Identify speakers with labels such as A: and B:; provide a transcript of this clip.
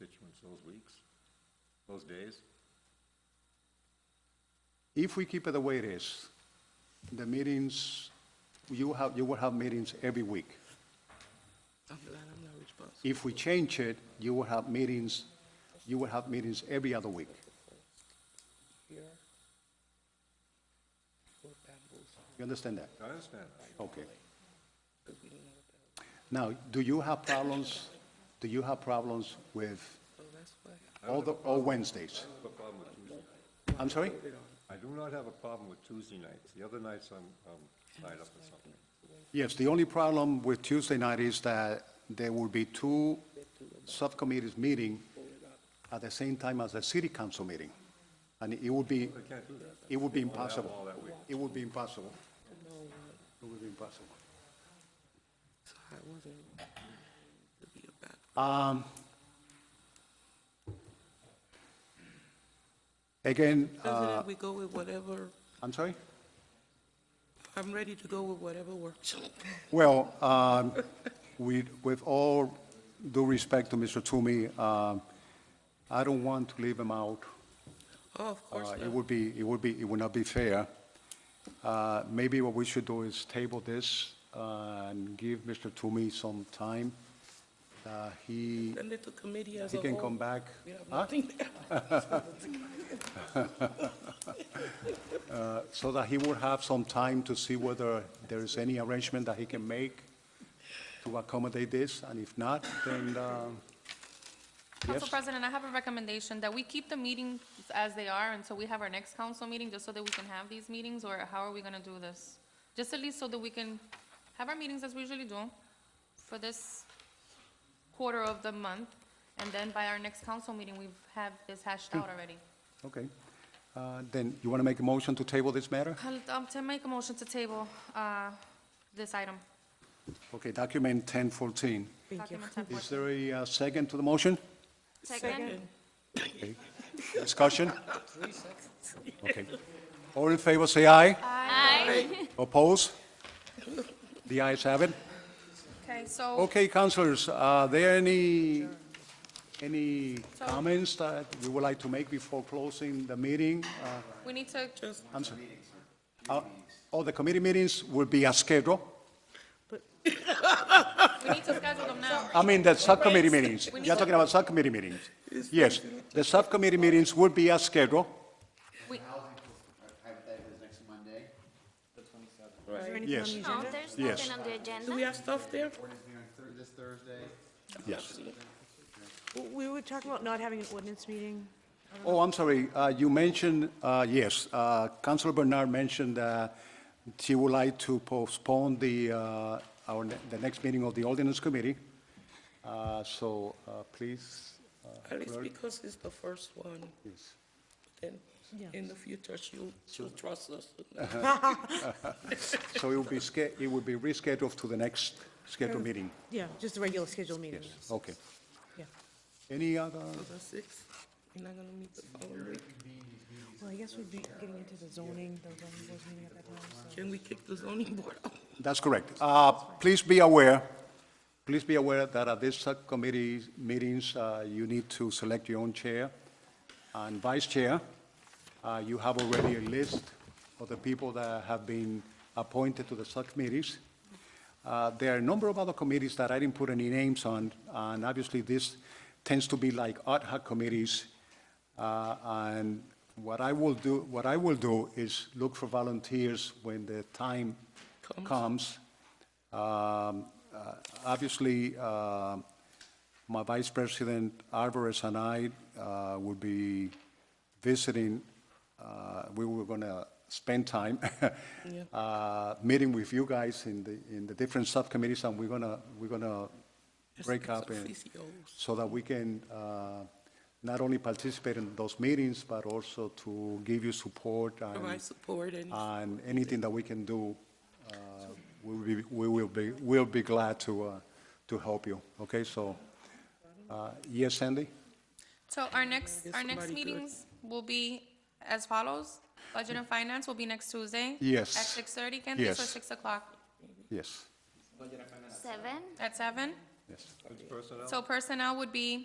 A: those weeks, those days?
B: If we keep it the way it is, the meetings, you have, you will have meetings every week.
C: I'm glad I'm not responsible.
B: If we change it, you will have meetings, you will have meetings every other week.
C: Here, what apples,
B: You understand that?
A: I understand.
B: Okay.
C: because we don't know what that,
B: Now, do you have problems, do you have problems with
C: so that's why.
B: all the, all Wednesdays?
A: I have a problem with Tuesday.
B: I'm sorry?
C: Put it on.
A: I do not have a problem with Tuesday nights. The other nights I'm, I'm tied up with something.
B: Yes, the only problem with Tuesday night is that there will be two subcommittees meeting at the same time as the city council meeting. And it would be,
A: I can't do that.
B: it would be
A: All
B: impossible.
A: that week.
B: It would be impossible. It would be impossible.
C: So I wasn't, to be about,
B: Um, Again, uh,
C: President, we go with whatever,
B: I'm sorry?
C: I'm ready to go with whatever works.
B: Well, um, we- with all due respect to Mr. Toomey, um, I don't want to leave him out.
C: Oh, of course
B: Uh, It
C: not.
B: would be, it would be, it would not be fair. Uh, Maybe what we should do is table this uh, and give Mr. Toomey some time. Uh, He,
C: Send it to committee as a
B: he
C: whole.
B: can come back.
C: We have
B: Huh?
C: nothing there.
B: so that he will have some time to see whether there is any arrangement that he can make to accommodate this, and if not, then, um,
D: Council
B: Yes.
D: President, I have a recommendation that we keep the meetings as they are until we have our next council meeting, just so that we can have these meetings, or how are we gonna do this? Just at least so that we can have our meetings as we usually do for this quarter of the month, and then by our next council meeting, we've had this hashed out already.
B: okay. Uh, Then, you want to make a motion to table this matter?
D: I'll, um, to make a motion to table, uh, this item.
B: Okay, document 1014.
D: Document 10.
B: Is there a uh, second to the motion?
D: Second?
B: Okay. Discussion? Okay. All in favor, say aye.
D: Aye.
B: Oppose? The ayes have it.
D: Okay, so,
B: Okay, councilors, are there any, any
D: So-
B: comments that you would like to make before closing the meeting? Uh,
D: we need to,
C: Just,
B: I'm sorry. Uh, All the committee meetings will be as scheduled?
D: we need to schedule them now.
B: I mean, the subcommittee meetings.
D: We need
B: You're
D: to-
B: talking about subcommittee meetings? Yes, the subcommittee meetings will be as scheduled.
D: We,
E: Hypothetically, it's next Monday.
B: Yes,
F: No, there's
B: Yes.
F: nothing on the agenda.
C: do we have stuff there?
E: This Thursday.
B: yes.
G: Well, We were talking about not having an ordinance meeting.
B: Oh, I'm sorry, uh, you mentioned, uh, yes, uh, Councilor Bernard mentioned that she would like to postpone the, uh, our, ne- the next meeting of the ordinance committee. Uh, So uh, please, uh,
C: At least
B: Clerk?
C: because it's the first one,
B: yes.
C: then in the future, she'll, she'll trust us.
B: Uh-huh. so it will be, sch- it will be rescheduled to the next scheduled meeting,
G: Yeah, just the regular scheduled meeting.
B: yes, okay.
G: Yeah.
B: Any other,
C: For the sixth, we're not gonna meet the following week.
G: Well, I guess we'd be getting into the zoning, the zoning board meeting at that time, so.
C: Can we kick the zoning board out?
B: that's correct. Uh, Please be aware, please be aware that at these subcommittee meetings, uh, you need to select your own chair and vice chair. Uh, You have already a list of the people that have been appointed to the subcommittees. Uh, There are a number of other committees that I didn't put any names on, and obviously this tends to be like ad hoc committees. Uh, And what I will do, what I will do is look for volunteers when the time comes. Um, uh, Obviously, uh, my Vice President Alvarez and I uh, will be visiting, uh, we were going to spend time uh, meeting with you guys in the, in the different subcommittees, and we're going to, we're going to break up and,
C: Officios.
B: so that we can uh, not only participate in those meetings, but also to give you support and
C: Provide support and
B: and anything that we can do, uh, we will be, we will be, we'll be glad to, uh, to help you, okay? So, uh, yes, Sandy?
D: So our next,
C: Get
D: our next
C: somebody good.
D: meetings will be as follows. Budget and Finance will be next Tuesday.
B: Yes.
D: At six thirty, Candace, or
B: Yes.
D: six o'clock?
B: Yes,
F: Seven?
D: At seven?
B: yes.
A: It's personnel.
D: So personnel would be